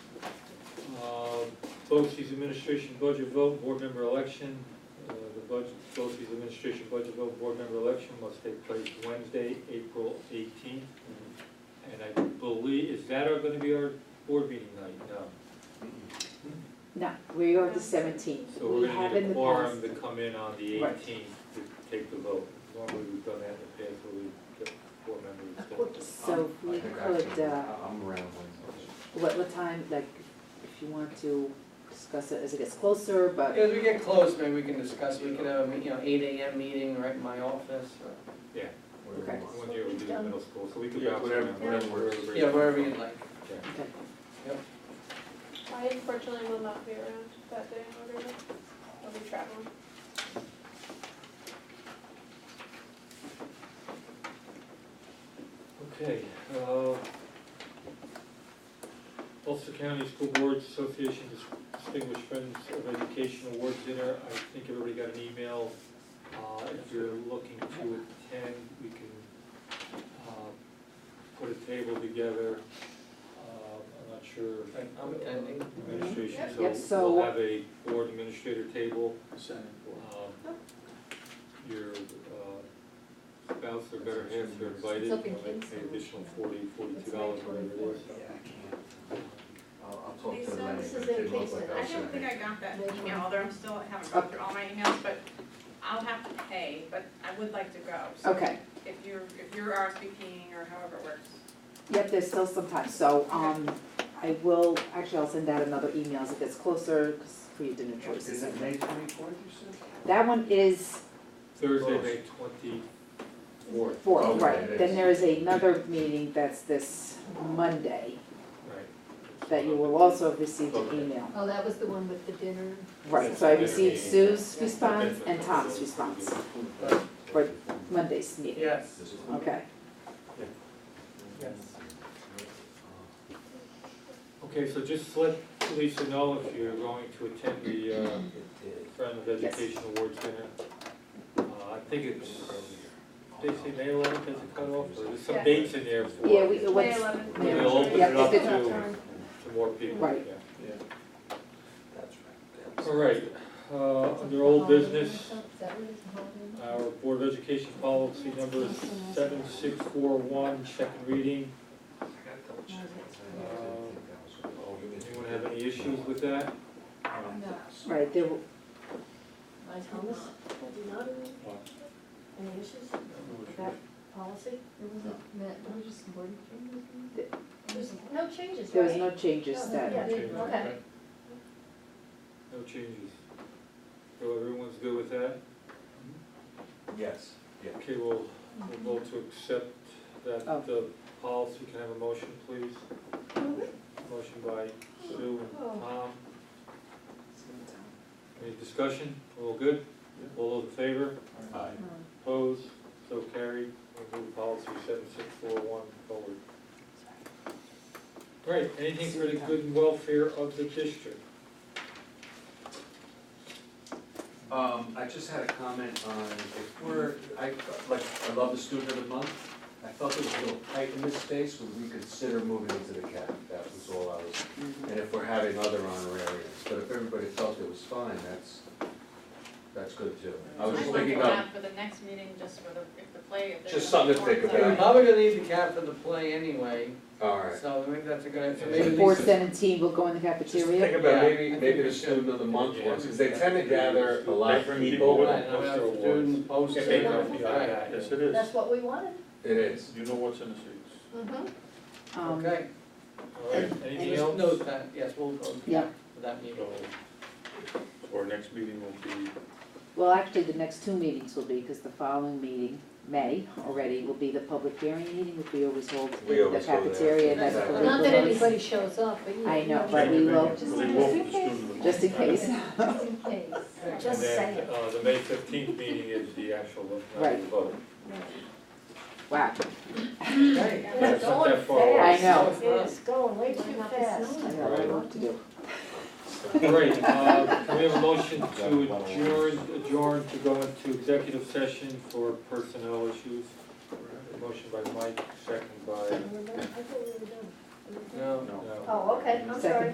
BOCES Um, administration budget vote, board member election. Uh, The budget, BOCES administration budget vote, board member election must take place Wednesday, April eighteenth. And I believe, is that are gonna be our board meeting night? No. No, we are the seventeenth. So we're We gonna have need in a the quorum past. to come in on the Right. eighteenth to take the vote. Normally we've done that in the past where we get four members. So if we could, uh, I'm around Wednesday. what, what time, like, if you want to discuss it as it gets closer, but, As we get close, maybe we can discuss, we could have, a you know, eight AM meeting right in my office, or, Yeah, whatever you want. one year we did in middle school, so we could Yeah, bounce whatever- around. whatever works. yeah, wherever you'd like. Yeah. okay. I unfortunately will not be around that day in order I'll be traveling. Okay, uh, Ulster County School Board Association Distinguished Friends of Education Award Dinner, I think everybody got an email. Uh, if you're looking to attend, we can, uh, put a table together. Uh, I'm not sure. Right, I'm attending. Administration, Yep, so so- we'll have a board administrator table. Um, Your uh, spouse or better half are invited, It's you know, up in they pay Kingston. additional forty, forty-two dollars, whatever it was. Yeah, I can't. I'll, I'll talk to Lisa, the manager. this is She in looks like Kingston. I'll I send don't think it. I got that email, although I'm still, I haven't gone through all my emails, but I'll have to pay, but I would like to go. So Okay, If you're, if you're RSVPing or however it works. yep, there's still some time, so, um, I will, actually, I'll send out another email as it gets closer, 'cause for your dinner choices. Is it May twenty-fourth, you That one is Thursday, May twenty-fourth. four, Okay, right, it then is. there is another meeting that's this Monday, Right. that you will also have received an Okay. email. Oh, that was the one with the dinner. Right, so I received Yeah. Sue's Yeah. response and Tom's response, for Monday's meeting, Yes, said? okay? yes. Okay, so just let Lisa know if you're going to attend the uh, It did. Friend of Yes. Education Awards Dinner. Uh, I think it's, they say May eleventh as a cutoff, or there's some Yeah. dates in there for. Yeah, we, May what's, 11th. We'll Yeah. open Yeah, it up it's to, to more people, Right. yeah. That's right. That's- All right, uh, under old business, our Board of Education policy number seven six four one, second reading. Uh, Anyone have any issues with that? Um, No, right, there, w- I Thomas, I do not have any issues with that policy. There wasn't, there was just some word changes. There's no changes, there was right? no changes Oh, Yeah, that, they- Changes, okay. right? No changes. So everyone's good with that? Yes, yeah. Okay, we'll, we'll vote to accept that, Oh. the policy, can I have a motion, please? Motion by Sue and Tom. Any discussion? All good? All those in favor? Aye. Um, Opposed? So carried. We'll move policy seven six four one forward. Great, anything for the good and welfare of the district? Um, I just had a comment on, if we're, I, like, I love the student of the month. I felt it was a little tight in this space, would we consider moving into the cap? That was all I was, and if we're having other honorariums, but if everybody felt it was fine, that's, that's good too. I was I'd just like thinking to about, have for the next meeting, just for the, if the play, if there's. Just something to think something We're about. probably gonna need the cap for the play anyway, all right. so I think that's a good, idea. so Yeah. maybe four Lisa, seventeen will go in the Just think cafeteria. about Yeah, maybe, I maybe think the we student of the month Yeah. ones, because they tend to gather a lot of Different people. people. Right, and we have Poster student Yeah, posters. they don't feel like Right. that. Yes, it is. That's what we wanted. It is. You know what's in the streets. Mm-hmm. Um, Okay, All right, anything just else? note that, yes, we'll vote Yeah. for that meeting. So, so our next meeting will be, Well, actually, the next two meetings will be, because the following meeting, May already, will be the public hearing meeting, which we always hold We in the always hold there. cafeteria, and that's for Exactly. legal Not that notice, anybody shows up, but you. I know, you but we will- Just We'll in walk case. the student of the just in month. case. Just in case, just And saying. then, uh, the May fifteenth meeting is the actual, uh, Right. vote. Wow, Okay. But it's not that far away. I know. It's going way too fast. I know, I know what to do. Great, uh, can we have a motion to adjourn, adjourn to go into executive session for personnel issues. Motion by Mike, second by, I thought we were done. No. No. uh, Oh, okay, I'm sorry.